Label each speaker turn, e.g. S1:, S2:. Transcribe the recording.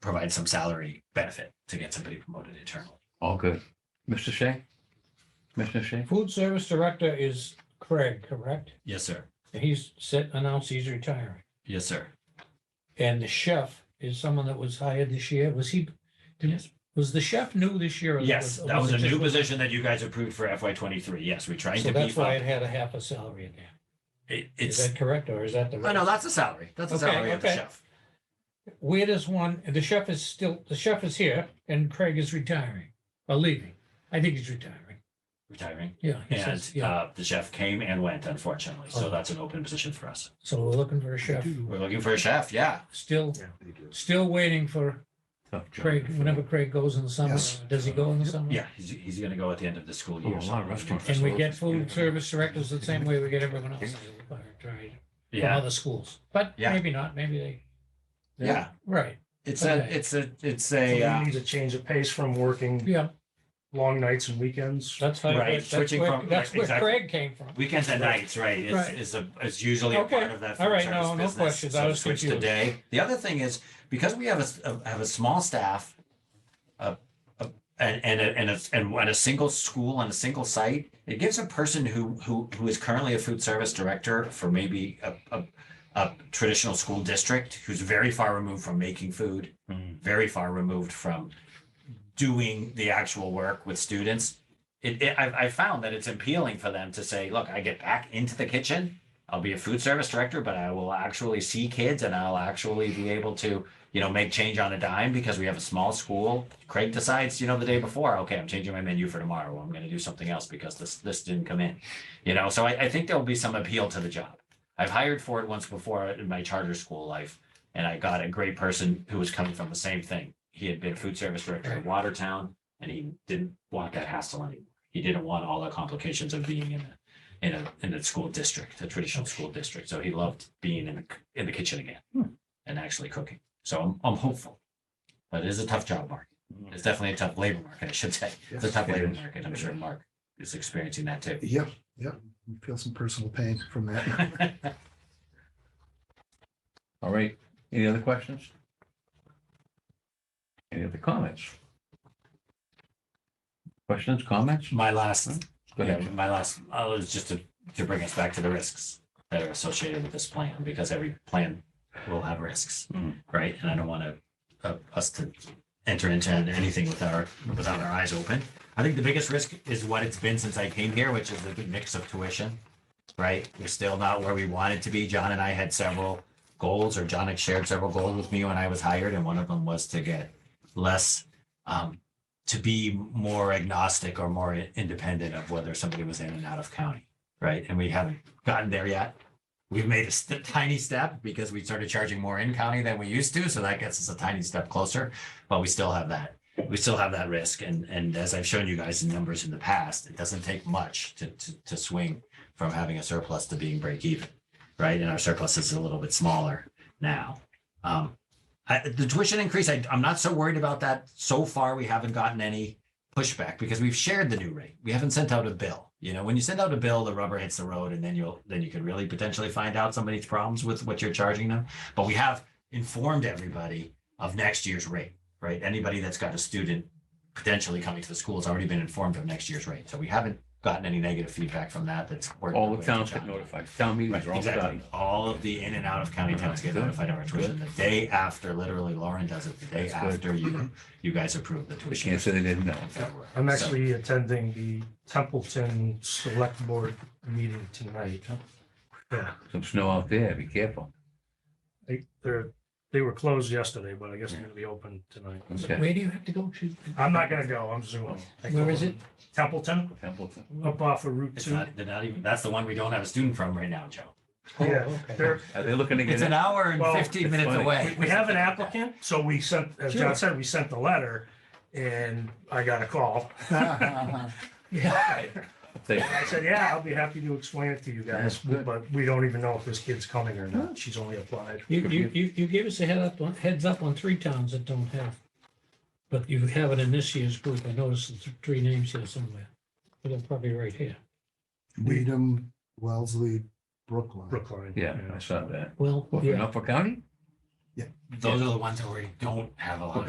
S1: provide some salary benefit to get somebody promoted internally.
S2: All good. Mr. Shea? Commissioner Shea?
S3: Food service director is Craig, correct?
S1: Yes, sir.
S3: He's said, announced he's retiring.
S1: Yes, sir.
S3: And the chef is someone that was hired this year. Was he,
S1: Yes.
S3: was the chef new this year? or
S1: Yes, that was
S3: it
S1: a new
S3: just-
S1: position that you guys approved for FY twenty-three. Yes, we tried
S3: So
S1: to
S3: that's
S1: beef
S3: why
S1: up.
S3: it had a half a salary in there.
S1: It-
S3: Is
S1: It's,
S3: that correct or is that the?
S1: oh, no, that's a salary. That's a
S3: Okay,
S1: salary of the
S3: okay.
S1: chef.
S3: Where does one, the chef is still, the chef is here and Craig is retiring or leaving. I think he's retiring.
S1: Retiring.
S3: Yeah. he
S1: And
S3: says, Yeah.
S1: uh, the chef came and went, unfortunately. So
S3: Oh.
S1: that's an open position for us.
S3: So we're looking for a chef,
S1: We're looking for a chef. Yeah.
S3: still, still waiting for
S2: Tough job.
S3: Craig, whenever Craig goes in the summer,
S4: Yes.
S3: does he go in the summer?
S1: Yeah, he's, he's going to go at the end of the school year.
S2: Oh, a
S1: so
S2: lot of
S1: we'll
S2: restaurants.
S1: look
S3: And
S1: for-
S3: we get food service directors the same way we get everyone else. Right, From
S1: Yeah,
S3: other schools, but
S1: Yeah.
S3: maybe not, maybe they,
S1: yeah.
S3: right,
S1: It's a,
S3: Okay.
S1: it's a, it's
S4: So
S1: a,
S4: we
S1: uh,
S4: need a change of pace from working
S3: yeah,
S4: long nights and weekends.
S3: that's how.
S1: Right,
S3: that's
S1: switching
S3: where-
S1: from-
S3: That's where
S1: exactly.
S3: Craig came from.
S1: weekends and nights, right? It's,
S3: Right.
S1: it's a, it's usually a
S3: Okay.
S1: part of that.
S3: All
S1: food
S3: right,
S1: service
S3: no, no
S1: business,
S3: questions. I
S1: so
S3: was
S1: switch to
S3: confused.
S1: day. The other thing is, because we have a s- a, have a small staff, a, a, and, and, a- and a, and one- a single school on a single site, it gives a person who, who, who is currently a food service director for maybe a, a, a traditional school district, who's very far removed from making food,
S2: Mm.
S1: very far removed from doing the actual work with students. It, it I, I found that it's appealing for them to say, look, I get back into the kitchen. I'll be a food service director, but I will actually see kids and I'll actually be able to, you know, make change on a dime because we have a small school. Craig decides, you know, the day before, okay, I'm changing my menu for tomorrow. I'm going to do something else because this this didn't come in, you know. So I, I think there will be some appeal to the job. I've hired for it once before in my charter school life, and I got a great person who was coming from the same thing. He had been food service director in Watertown, and he didn't want that hassle anymore. He didn't want all the complications of being in a in a in a school district, a traditional school district. So he loved being in the in the kitchen again
S2: Hmm.
S1: and actually cooking. So I'm I'm hopeful, but it is a tough job market.
S2: Mm-hmm.
S1: It's definitely a tough labor market, I should say. It's a tough
S2: It
S1: labor
S2: is.
S1: market. I'm sure Mark is experiencing that too.
S4: Yep, yep. We Feel some personal pain from that.
S2: All right. Any other questions? Any other comments? Questions, comments?
S1: My last
S2: Go
S1: Yeah,
S2: ahead.
S1: my last, I was just to, to bring us back to the risks that are associated with this plan, because every plan will have risks,
S2: Mm.
S1: right? And I don't want to, uh, us to enter into anything with our, without our eyes open. I think the biggest risk is what it's been since I came here, which is the mix of tuition, right? We're still not where we wanted to be. John and I had several goals, or John had shared several goals with me when I was hired, and one of them was to get less, um, to be more agnostic or more i- independent of whether somebody was in and out of county, right? And we haven't gotten there yet. We've made a st- tiny step because we started charging more in county than we used to, so that gets us a tiny step closer, but we still have that. We still have that risk, and and as I've shown you guys in numbers in the past, it doesn't take much to to to swing from having a surplus to being break even, right? And our surplus is a little bit smaller now. Um, I, the tuition increase, I, I'm not so worried about that. So far, we haven't gotten any pushback because we've shared the new rate. We haven't sent out a bill. You know, when you send out a bill, the rubber hits the road, and then you'll then you can really potentially find out somebody's problems with what you're charging them. But we have informed everybody of next year's rate, right? Anybody that's got a student potentially coming to the school has already been informed of next year's rate. So we haven't gotten any negative feedback from that. That's worked
S2: All
S1: our
S2: the
S1: way
S2: towns
S1: to
S2: get
S1: John.
S2: notified. Town meetings
S1: Right,
S2: are all
S1: exactly.
S2: done.
S1: All of the in and out of county towns get
S2: Good.
S1: notified of our tuition the day after, literally Lauren does it the day
S2: That's good.
S1: after you, you guys approve the
S2: We
S1: tuition.
S2: can't say they didn't know.
S1: in February.
S4: I'm
S1: So-
S4: actually attending the Templeton Select Board meeting tonight. Yeah,
S2: Some snow out there. Be careful.
S4: they, they're, they were closed yesterday, but I guess they're gonna be open tonight.
S2: Okay.
S3: Where do you have to go to?
S4: I'm not gonna go, I'm zooming.
S3: Where is it?
S4: Templeton,
S2: Templeton.
S4: up off of Route
S1: It's
S4: Two.
S1: not, they're not even, that's the one we don't have a student from right now, Joe.
S3: Oh,
S4: Yeah,
S3: okay.
S4: They're,
S2: Are they looking to get
S1: It's
S2: it?
S1: an hour and
S4: Well,
S1: fifteen
S2: it's
S1: minutes
S2: funny.
S1: away.
S4: we have an applicant, so we sent, as
S3: Sure.
S4: John said, we sent the letter and I got a call.
S3: Yeah.
S2: They-
S4: And I said, yeah, I'll be happy to explain it to you
S2: That's
S4: guys,
S2: good.
S4: but we don't even know if this kid's coming or not. She's only applied.
S3: You, you, you, you gave us a head up, on- heads up on three towns that don't have. But you have it in this year's group. I noticed the th- three names here somewhere. But they're probably right here.
S5: Needham, Wellesley, Brookline.
S4: Brookline.
S2: Yeah, I saw that.
S3: Well,
S2: What, for
S3: yeah,
S2: Norfolk County?
S5: Yeah.
S1: Those are the ones that we don't have a lot of